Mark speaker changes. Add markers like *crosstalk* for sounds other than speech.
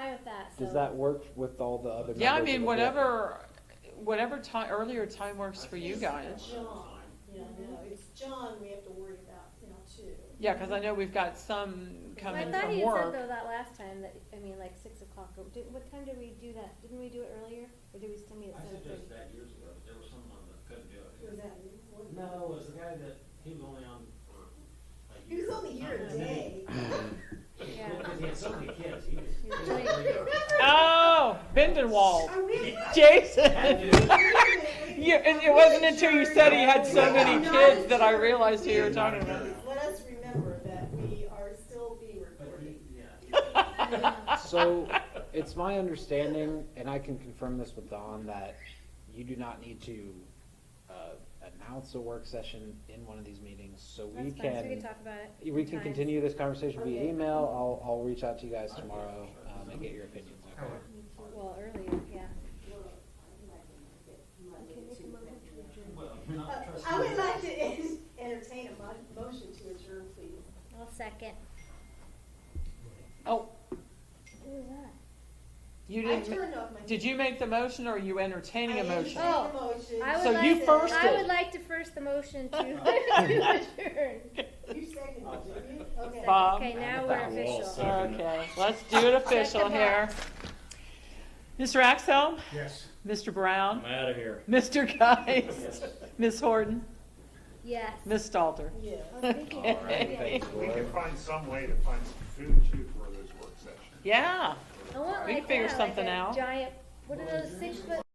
Speaker 1: Does
Speaker 2: So-
Speaker 1: that work with all the other members?
Speaker 3: Yeah, I
Speaker 1: of
Speaker 3: mean,
Speaker 1: the board?
Speaker 3: whatever, whatever time, earlier time works for you
Speaker 2: It's
Speaker 3: guys.
Speaker 2: John, you know, it's John we have to worry about, you know, too.
Speaker 3: Yeah, cause I know we've got some coming
Speaker 4: I thought
Speaker 3: from
Speaker 4: you had
Speaker 3: work.
Speaker 4: said though that last time, that, I mean, like six o'clock, or did, what time did we do that? Didn't we do it earlier, or did we still meet at
Speaker 5: I
Speaker 4: seven
Speaker 5: suggested
Speaker 4: thirty?
Speaker 5: that years ago, but there was someone that couldn't do
Speaker 2: Who was
Speaker 5: it.
Speaker 2: that? What-
Speaker 5: No, it was the guy that, he was only on for a
Speaker 2: He
Speaker 5: year.
Speaker 2: was only here a
Speaker 5: And then
Speaker 2: day.
Speaker 5: he-
Speaker 4: Yeah.
Speaker 5: Because he had so many kids,
Speaker 2: *laughs*
Speaker 5: he was.
Speaker 4: He was
Speaker 5: *laughs* he was
Speaker 4: really-
Speaker 5: really-
Speaker 3: Oh, Bindenwald,
Speaker 2: I really-
Speaker 3: Jason.
Speaker 5: Had to.
Speaker 2: *laughs*
Speaker 3: *laughs* Yeah, and it wasn't until you said he had so many kids that I realized who you were talking about.
Speaker 2: Let us remember that we are still being
Speaker 5: But he,
Speaker 2: recorded.
Speaker 5: yeah.
Speaker 1: So, it's my understanding, and I can confirm this with Don, that you do not need to, uh, announce a work session in one of these meetings, so we
Speaker 4: That's fine, so we can
Speaker 1: can,
Speaker 4: talk about it.
Speaker 1: we can
Speaker 4: sometimes.
Speaker 1: continue this conversation via
Speaker 2: Okay.
Speaker 1: email, I'll, I'll reach out to you guys tomorrow, um, and get your opinions, okay?
Speaker 4: Well, earlier, yeah.
Speaker 5: Well, not
Speaker 2: Uh,
Speaker 5: trusting.
Speaker 2: I would like to *laughs* en- entertain a mo- motion to adjourn, please.
Speaker 4: I'll second.
Speaker 3: Oh,
Speaker 4: Who was that?
Speaker 3: you
Speaker 2: I
Speaker 3: didn't,
Speaker 2: turned off my.
Speaker 3: did you make the motion or are you entertaining a motion?
Speaker 2: I
Speaker 4: Oh,
Speaker 2: entertained the motion.
Speaker 4: I would
Speaker 3: So
Speaker 4: like
Speaker 3: you
Speaker 4: to-
Speaker 3: first
Speaker 4: I
Speaker 3: it.
Speaker 4: would like to first the motion to, *laughs* to adjourn.
Speaker 2: You seconded it, didn't you? Okay.
Speaker 3: *laughs* Bob?
Speaker 4: Okay, now we're official.
Speaker 3: Okay, let's do it official
Speaker 4: Second
Speaker 3: here. Mr. Axell,
Speaker 6: Yes.
Speaker 3: Mr. Brown,
Speaker 6: out of here.
Speaker 3: Mr. Geist, Ms. Horton,
Speaker 4: Yes.
Speaker 3: Ms. Stalter.
Speaker 2: Yeah.
Speaker 4: Well, speaking of-
Speaker 3: Alright,
Speaker 4: yeah.
Speaker 6: We can find some way to find some food too for those work sessions.
Speaker 3: Yeah.
Speaker 4: I want
Speaker 3: We
Speaker 4: like
Speaker 3: can figure
Speaker 4: that,
Speaker 3: something
Speaker 4: like a
Speaker 3: out.
Speaker 4: giant, what are those, six foot